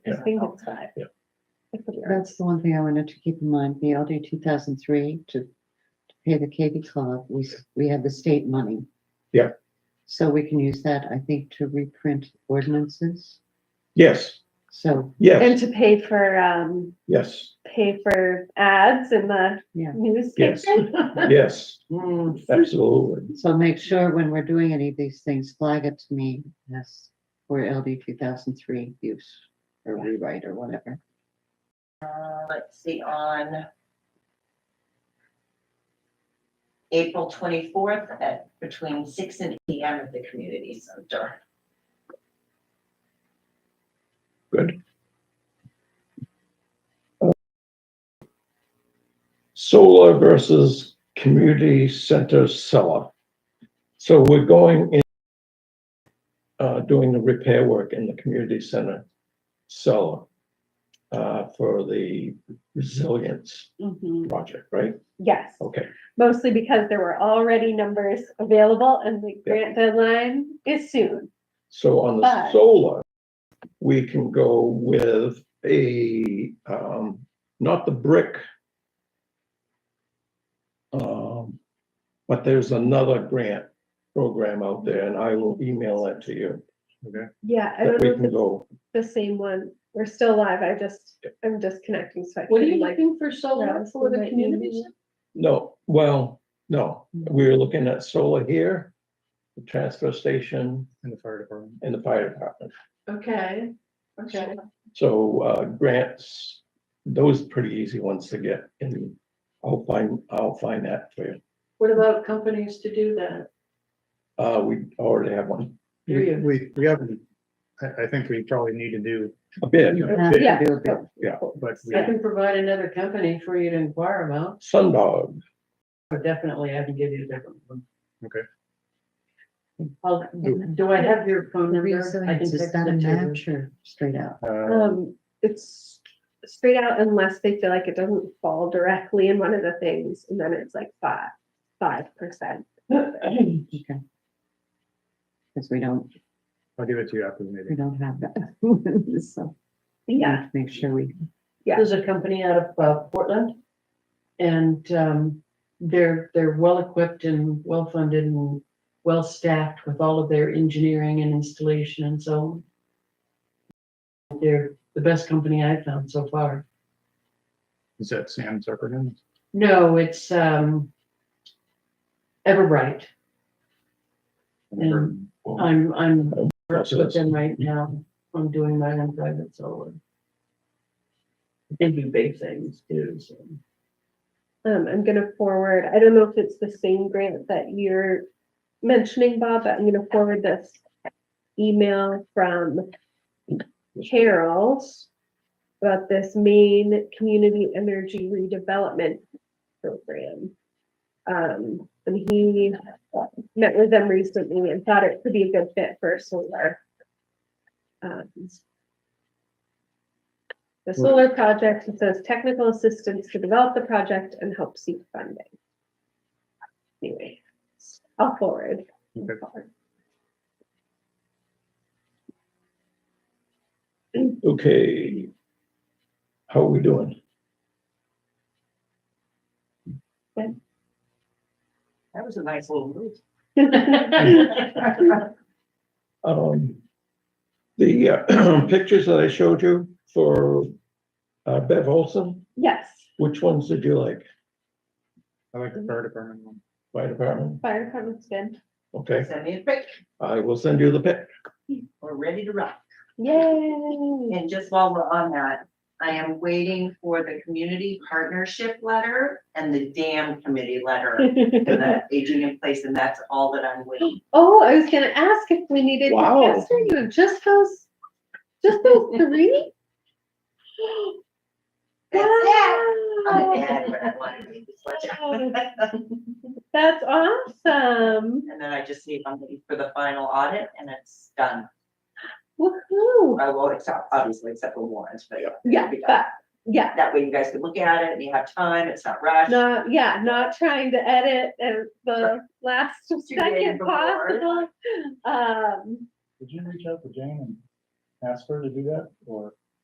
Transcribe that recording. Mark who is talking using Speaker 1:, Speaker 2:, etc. Speaker 1: I think it's five.
Speaker 2: Yeah.
Speaker 1: That's what we're-
Speaker 3: That's the one thing I wanted to keep in mind, the LD two thousand three to to pay the KV club, we, s- we had the state money.
Speaker 2: Yeah.
Speaker 3: So we can use that, I think, to reprint ordinances,
Speaker 2: Yes,
Speaker 3: so,
Speaker 2: yes,
Speaker 1: And to pay for, um,
Speaker 2: yes,
Speaker 1: pay for ads in the
Speaker 3: Yeah.
Speaker 2: Yes.
Speaker 1: newspaper.
Speaker 2: yes, Mm.
Speaker 3: so
Speaker 2: absolutely.
Speaker 3: make sure when we're doing any of these things, flag it to me as for LD two thousand three use or rewrite or whatever.
Speaker 4: Uh, let's see, on April twenty-fourth at between six and eight PM at the community center.
Speaker 2: Solar versus community center seller. So we're going in, uh, doing the repair work in the community center seller uh, for the resilience
Speaker 1: Mhm.
Speaker 2: project, right?
Speaker 1: Yes,
Speaker 2: Okay,
Speaker 1: mostly because there were already numbers available and the grant deadline is soon.
Speaker 2: so on the
Speaker 1: But-
Speaker 2: solar, we can go with a, um, not the brick. Um, but there's another grant program out there and I will email that to you. Okay.
Speaker 1: Yeah, I
Speaker 2: That
Speaker 1: don't
Speaker 2: we
Speaker 1: know if
Speaker 2: can
Speaker 1: it's
Speaker 2: go,
Speaker 1: the same one. We're still live. I just, I'm disconnecting. So I
Speaker 5: What are you
Speaker 1: couldn't like,
Speaker 5: looking for solar
Speaker 1: browse
Speaker 5: for
Speaker 1: the
Speaker 5: the community?
Speaker 1: email?
Speaker 5: center?
Speaker 2: no, well, no,
Speaker 1: Mm.
Speaker 2: we're looking at solar here, the transfer station
Speaker 6: And the fire department.
Speaker 2: and the fire department.
Speaker 5: Okay, okay.
Speaker 2: So uh, grants, those are pretty easy ones to get and I'll find, I'll find that for you.
Speaker 5: What about companies to do that?
Speaker 2: Uh, we already have one,
Speaker 6: We, we- we haven't, I, I think we probably need to do,
Speaker 2: a bid,
Speaker 3: Have to
Speaker 1: Yeah.
Speaker 3: do a bit.
Speaker 6: but we,
Speaker 5: I can provide another company for you to inquire about,
Speaker 2: Sundog,
Speaker 5: or definitely I can give you a different one.
Speaker 6: Okay.
Speaker 5: I'll- do I have your phone number? I can
Speaker 3: Resilience, is
Speaker 5: text
Speaker 3: that a
Speaker 5: it to you.
Speaker 3: match or straight out?
Speaker 6: uh,
Speaker 1: um, it's straight out unless they feel like it doesn't fall directly in one of the things. And then it's like five, five percent.
Speaker 3: Okay. Because we don't,
Speaker 6: I'll give it to you after the
Speaker 3: we
Speaker 6: meeting.
Speaker 3: don't have that, so. we need
Speaker 1: Yeah,
Speaker 3: to Make sure we.
Speaker 1: Yeah.
Speaker 5: There's a company out of uh, Portland. And um, they're, they're well-equipped and well-funded and well-staffed with all of their engineering and installation and so on. They're the best company I've found so far.
Speaker 6: Is that Sam Zuckerman?
Speaker 5: No, it's um, Everbright. And I'm, I'm working with them right now. I'm doing my own private solar. They do big things too, so.
Speaker 1: um, I'm gonna forward, I don't know if it's the same grant that you're mentioning, Bob, but I'm gonna forward this email from Carol's about this Maine Community Energy Redevelopment Program. Um, and he met with them recently and thought it could be a good fit for solar. Um, the solar project, it says technical assistance to develop the project and help seek funding. Anyway, I'll forward.
Speaker 6: Okay.
Speaker 2: okay. How are we doing?
Speaker 4: That was a nice little move.
Speaker 2: Um, the uh, pictures that I showed you for uh, Bev Olson,
Speaker 1: Yes,
Speaker 2: which ones did you like?
Speaker 6: I like the fire department one.
Speaker 2: Fire department,
Speaker 1: fire department's good.
Speaker 2: okay,
Speaker 4: Send me a pic,
Speaker 2: I will send you the pic.
Speaker 4: we're ready to rock.
Speaker 1: Yay.
Speaker 4: And just while we're on that, I am waiting for the community partnership letter and the dam committee letter for the aging in place, and that's all that I'm waiting.
Speaker 1: Oh, I was gonna ask if we needed to
Speaker 2: Wow.
Speaker 1: pester you, just those, just those three?
Speaker 4: That's it. I'm
Speaker 1: Wow.
Speaker 4: mad when I wanted to do this.
Speaker 1: That's awesome.
Speaker 4: And then I just need somebody for the final audit and it's done.
Speaker 1: Woohoo.
Speaker 4: I won't accept, obviously accept the warrants, but
Speaker 1: Yeah, but, yeah,
Speaker 4: that way you guys can look at it and you have time, it's not rushed.
Speaker 1: Not, yeah, not trying to edit and the last
Speaker 4: days
Speaker 1: second
Speaker 4: before.
Speaker 1: possible. Um,
Speaker 6: Did you reach out to Jane and ask her to do that or?